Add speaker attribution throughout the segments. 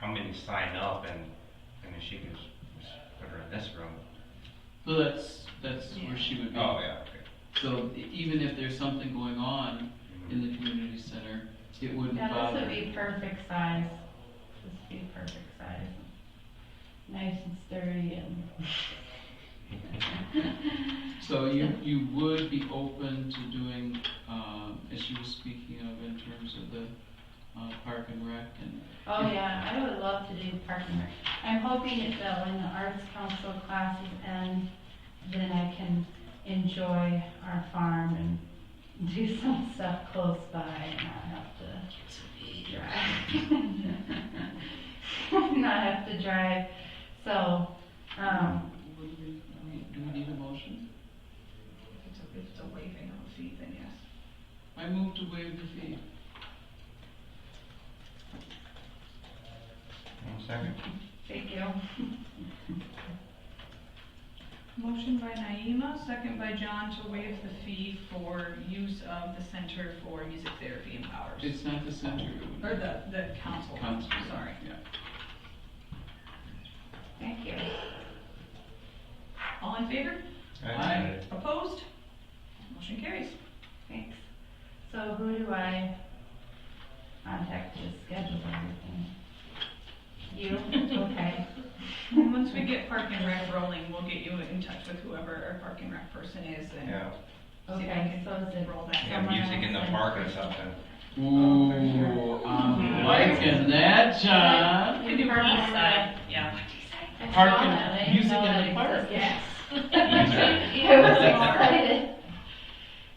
Speaker 1: how many sign up and, I mean, she can just just put her in this room.
Speaker 2: So that's, that's where she would be.
Speaker 1: Oh, yeah, okay.
Speaker 2: So e- even if there's something going on in the community center, it wouldn't
Speaker 3: Yeah, this would
Speaker 2: bother.
Speaker 3: be perfect size. This would be perfect size. Nice and sturdy and.
Speaker 2: So you, you would be open to doing, um, as she was speaking of in terms of the, uh, park and rec and,
Speaker 3: Oh, yeah, I would love to do park and rec. I'm hoping that when the Arts Council classes end, then I can enjoy our farm and do some stuff close by and not have to drive. Not have to drive, so, um,
Speaker 2: Would we- I mean, do we need a motion?
Speaker 4: It's a, it's a waiving of a fee, then yes.
Speaker 2: I move to waive the fee.
Speaker 1: Mm-hmm. One second.
Speaker 3: thank you.
Speaker 4: Motion by Naima, second by John to waive the fee for use of the Center for Music Therapy and Powers.
Speaker 2: It's not the center, it would be.
Speaker 4: Or the, the council,
Speaker 2: Council.
Speaker 4: sorry.
Speaker 2: Yeah.
Speaker 3: Thank you.
Speaker 4: All in favor?
Speaker 1: Uh,
Speaker 2: Aye.
Speaker 4: Opposed? Motion carries.
Speaker 3: Thanks. So who do I contact to schedule everything? You? Okay.
Speaker 4: And once we get Park and Rec rolling, we'll get you in touch with whoever our Park and Rec person is and
Speaker 1: Yeah,
Speaker 4: see if
Speaker 3: Okay,
Speaker 4: I
Speaker 3: so is
Speaker 4: can
Speaker 3: it,
Speaker 4: roll that.
Speaker 1: yeah, music in the park or something.
Speaker 2: Ooh, I'm liking that, John.
Speaker 3: Can do park and rec.
Speaker 4: Yeah.
Speaker 3: I saw
Speaker 2: Park and-
Speaker 3: that, I didn't
Speaker 2: music in
Speaker 3: know that
Speaker 2: the park.
Speaker 3: existed.
Speaker 5: Yes.
Speaker 3: I was excited.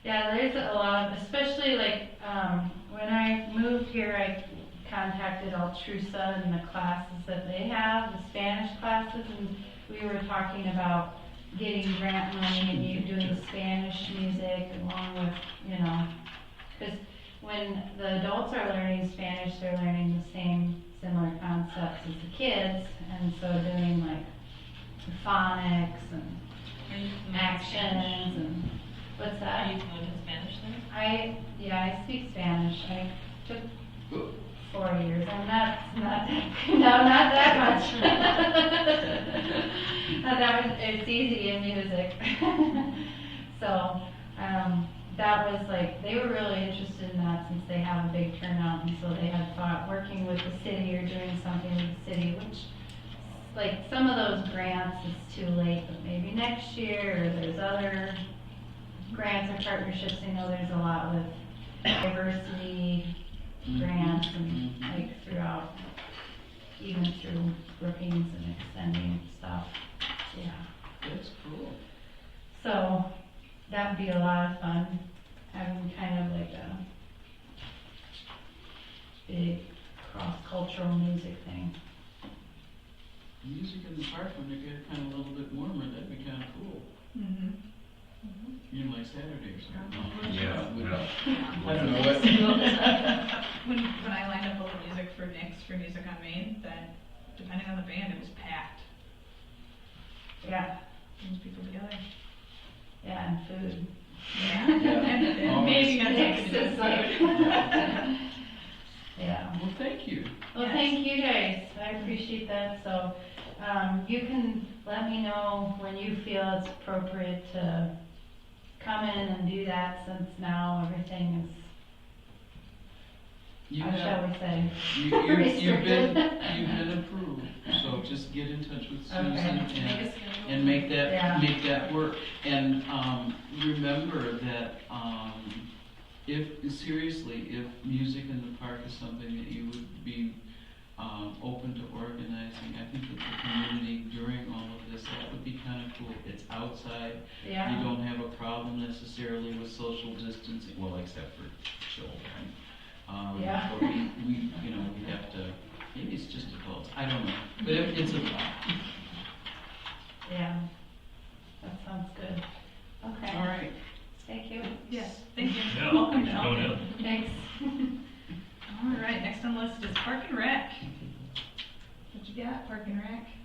Speaker 3: Yeah, there's a lot, especially like, um, when I moved here, I contacted Altrusa and the classes that they have, the Spanish classes, and we were talking about getting grant money and you doing Spanish music along with, you know, because when the adults are learning Spanish, they're learning the same similar concepts as the kids, and so doing like phonics and actions and what's
Speaker 5: Are
Speaker 3: that?
Speaker 5: you fluent in Spanish then?
Speaker 3: I yeah, I speak Spanish. I took four years. I'm not not no not that much. not that much. It's easy in music. so um, that was like they were really interested in that since they have a big turnout, and so they had thought working with the city or doing something with the city, which like some of those grants it's too late, but maybe next year, or there's other grants or partnerships, I know there's a lot with diversity grants and like throughout, even through Brookings and extending stuff, yeah.
Speaker 2: That's cool.
Speaker 3: So, that'd be a lot of fun, having kind of like a big cross-cultural music thing.
Speaker 2: Music in the park when it gets kind of a little bit warmer, that'd be kind of cool.
Speaker 4: Mm-hmm.
Speaker 3: Mm-hmm.
Speaker 2: You know, like Saturday or something.
Speaker 1: Yeah,
Speaker 2: Would-
Speaker 1: yeah.
Speaker 2: I don't know what.
Speaker 4: When, when I lined up all the music for Nick's, for Music on Main, then depending on the band, it was packed.
Speaker 3: Yeah,
Speaker 4: Brings people together.
Speaker 3: yeah, and food.
Speaker 4: Yeah. And, and maybe that's
Speaker 3: Nick's
Speaker 4: something to do
Speaker 3: is
Speaker 4: with
Speaker 3: like.
Speaker 4: food.
Speaker 3: Yeah.
Speaker 2: Well, thank you.
Speaker 3: Well,
Speaker 4: Yes.
Speaker 3: thank you guys, I appreciate that, so, um, you can let me know when you feel it's appropriate to come in and do that, since now everything is,
Speaker 2: You
Speaker 3: how
Speaker 2: have,
Speaker 3: shall we say?
Speaker 2: you, you- you've been,
Speaker 3: Restricted.
Speaker 2: you've been approved, so just get in touch with Susan
Speaker 3: Okay.
Speaker 2: and
Speaker 5: Make a schedule.
Speaker 2: and make
Speaker 3: Yeah.
Speaker 2: that, make that work. And, um, remember that, um, if, seriously, if music in the park is something that you would be, um, open to organizing, I think that the community during all of this, that would be kinda cool. It's outside, you
Speaker 3: Yeah,
Speaker 2: don't have a problem necessarily with social distancing, well, except for children. Um,
Speaker 3: Yeah.
Speaker 2: But we, we, you know, we have to, maybe it's just adults, I don't know, but it- it's a,
Speaker 3: yeah, that sounds good,
Speaker 2: all
Speaker 3: okay,
Speaker 2: right.
Speaker 3: thank you,
Speaker 4: Yes, thank you.
Speaker 6: Yeah,
Speaker 4: Welcome
Speaker 6: thanks for
Speaker 4: John.
Speaker 6: coming in.
Speaker 3: thanks.
Speaker 4: All right, next on the list is Park and Rec. What you got, Park and Rec?
Speaker 2: Uh, uh, uh,